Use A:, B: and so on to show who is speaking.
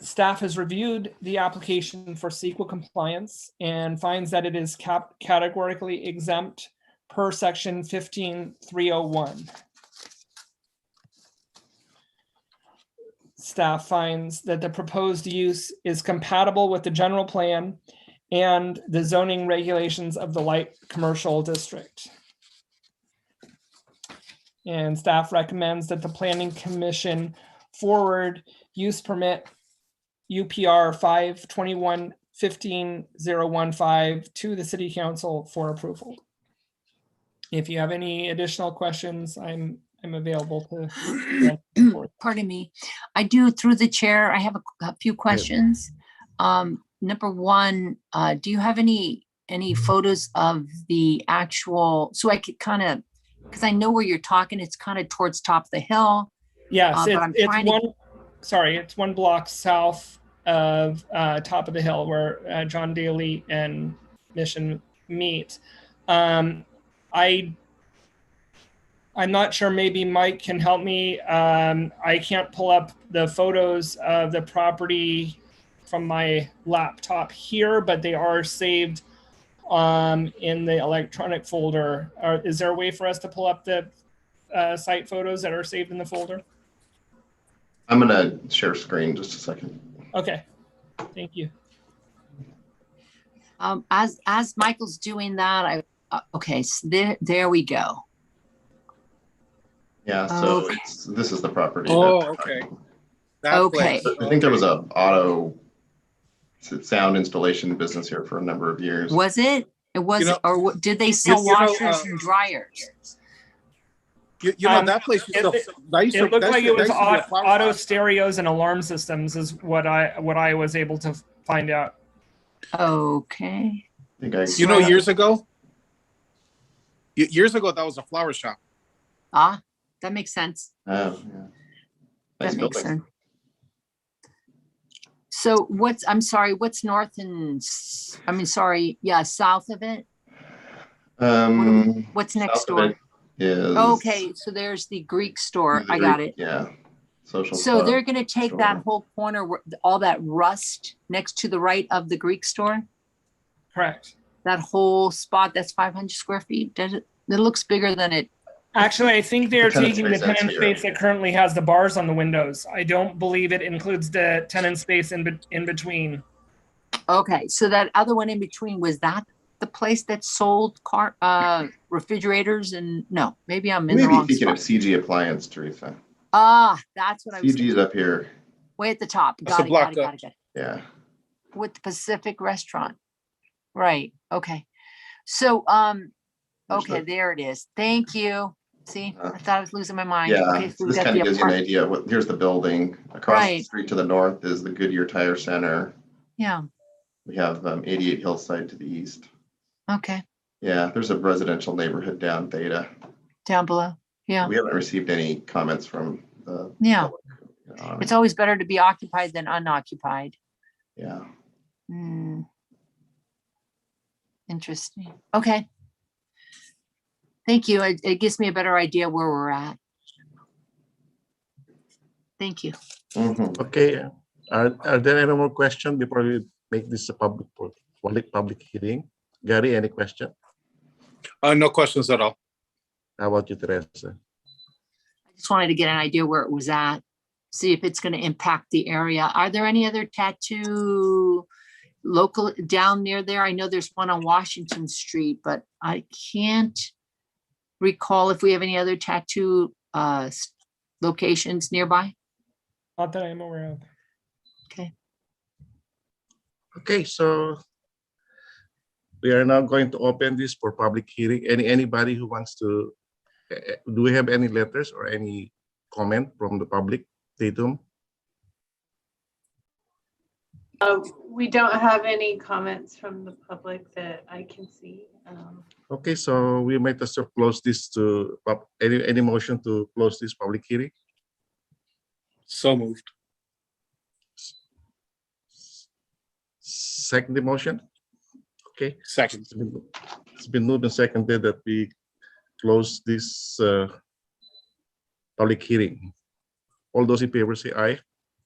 A: Staff has reviewed the application for sequel compliance and finds that it is cap- categorically exempt per section fifteen three oh one. Staff finds that the proposed use is compatible with the general plan and the zoning regulations of the light commercial district. And staff recommends that the planning commission forward use permit UPR five twenty-one fifteen zero one five to the city council for approval. If you have any additional questions, I'm, I'm available to.
B: pardon me. I do, through the chair, I have a c- a few questions. Um, number one, uh, do you have any, any
C: Mm-hmm.
B: photos of the actual, so I could kind of, because I know where you're talking, it's kind of towards top of the hill. Uh,
A: Yes,
B: but
A: it's,
B: I'm
A: it's
B: trying to-
A: one, sorry, it's one block south of uh, Top of the Hill where uh, John Daly and Mission meet. Um, I, I'm not sure, maybe Mike can help me. Um, I can't pull up the photos of the property from my laptop here, but they are saved um, in the electronic folder. Are- Is there a way for us to pull up the uh, site photos that are saved in the folder?
D: I'm gonna share screen just a second.
A: Okay, thank you.
B: Um, as, as Michael's doing that, I, uh, okay, s- there, there we go.
D: Yeah, so
B: Okay.
D: it's, this is the property. that-
C: Oh, okay. That
B: Okay.
C: place,
D: I think there was
C: okay.
D: a auto s- sound installation business here for a number of years.
B: Was it? It was,
C: know-
B: or what- did they sell
C: you know,
B: washers
C: uh,
B: and dryers?
C: You, you know,
A: Um,
C: that place
A: it-
C: used to,
A: it-
C: that used to.
A: It looked
C: that
A: like
C: used
A: it
C: to-
A: was
C: that used to be a
A: au-
C: flower
A: auto
C: shop.
A: stereos and alarm systems is what I, what I was able to find out.
B: Okay,
D: I think I,
C: You know, years ago? Y- Years ago, that was a flower shop.
B: ah, that makes sense.
D: oh, yeah. Nice
B: That makes
D: building.
B: sense. So what's, I'm sorry, what's north and, s- I mean, sorry, yeah, south of it?
D: Um.
B: What's next
D: south of
B: door?
D: it Is.
B: Okay, so there's the Greek store. I got it.
D: Yeah. Social.
B: So
D: club.
B: they're gonna take
D: store.
B: that whole corner, where- all that rust next to the right of the Greek store?
A: Correct.
B: That whole spot, that's five hundred square feet? Does it, it looks bigger than it.
A: Actually, I think they're
D: The tenant
A: taking the
D: space, that's
A: tenant
D: here.
A: space that currently has the bars on the windows. I don't believe it includes the tenant space in, bet- in between.
B: Okay, so that other one in between, was that the place that sold car, uh, refrigerators and, no, maybe I'm in the
D: Maybe
B: wrong
D: speaking of
B: spot.
D: CG appliance, Teresa.
B: Ah, that's what I was.
D: CG's up here.
B: Way at the top.
C: That's
B: Got it, got
C: the block
B: it,
C: up.
B: got it, got
D: Yeah.
B: it. With the Pacific Restaurant. Right, okay. So, um, okay,
D: Understood.
B: there it is. Thank you. See,
D: Uh,
B: I thought I was losing my mind.
D: Yeah,
B: Okay, so
D: so
B: we
D: this
B: got
D: kind
B: the
D: of gives you an
B: apart-
D: idea. of What, here's the building. Across the
B: Right.
D: street to the north is the Goodyear Tire Center.
B: Yeah,
D: We have um, 88 Hillside to the east.
B: okay,
D: Yeah, there's a residential neighborhood down Theta.
B: down below. Yeah,
D: We haven't received any comments from the. uh,
B: yeah.
D: you know,
B: It's always better to be occupied than unoccupied.
D: Yeah,
B: Hmm. Interesting. Okay. Thank you. It, it gives me a better idea where we're at. Thank you.
D: Mhm.
E: Okay, uh, are, are there any more questions before we make this a public, po- public, public hearing? Gary, any question?
C: Uh, no questions at all.
E: How about you, Teresa?
B: I just wanted to get an idea where it was at, see if it's gonna impact the area. Are there any other tattoo local down near there? I know there's one on Washington Street, but I can't recall if we have any other tattoo uh s- locations nearby.
A: Not that I'm aware of.
E: Okay, so we are now going to open this for public hearing. Any, anybody who wants to, eh, eh, do we have any letters or any comment from the public, Tatum?
F: Uh, We don't have any comments from the public that I can see. Um,
E: Okay, so we might as well close this to, pub- any, any motion to close this public hearing?
C: So moved.
E: Second the motion? Okay.
C: Second.
E: It's been- It's been moved and seconded that we close this uh, public hearing. All those in favor say aye.